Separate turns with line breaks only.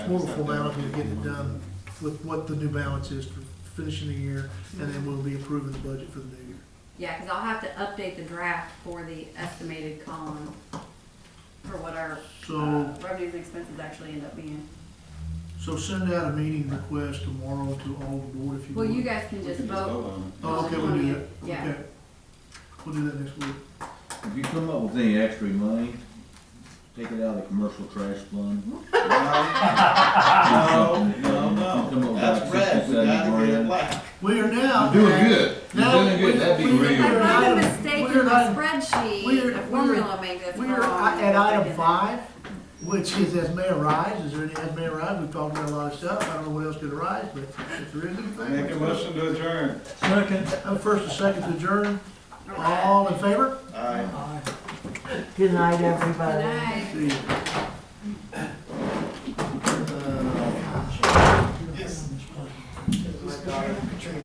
more of a formality to get it done with what the new balance is for finishing the year, and then we'll be approving the budget for the new year.
Yeah, because I'll have to update the draft for the estimated column for what our
So,
uh, revenues and expenses actually end up being.
so send out a meeting request tomorrow to all the board if you
Well,
would.
you guys can
We
just
can
vote.
on
Oh, okay, we'll do that.
Yeah.
Okay. We'll do that next week.
If you come up with any extra money, take it out of the commercial trash fund.
it. No, no,
Come
no,
on,
that's
guys,
red, we gotta get it
67 grand.
black.
We are now.
You're doing good. You're
Now,
doing good. That'd be
we- we-
real.
I
we're not
found a
in-
mistake
we're
in my
not in-
spreadsheet,
we're-
a
we're-
formula maybe that's
We're
wrong.
at item five, which is as may arise, is there any as may arise, we've talked about a lot of stuff, I don't know what else could arise, but if there is anything.
Make a motion to adjourn.
Second. I'm first and second to adjourn,
All right.
all in favor?
Aye.
Good night, everybody.
Good night.
See you.
Yes.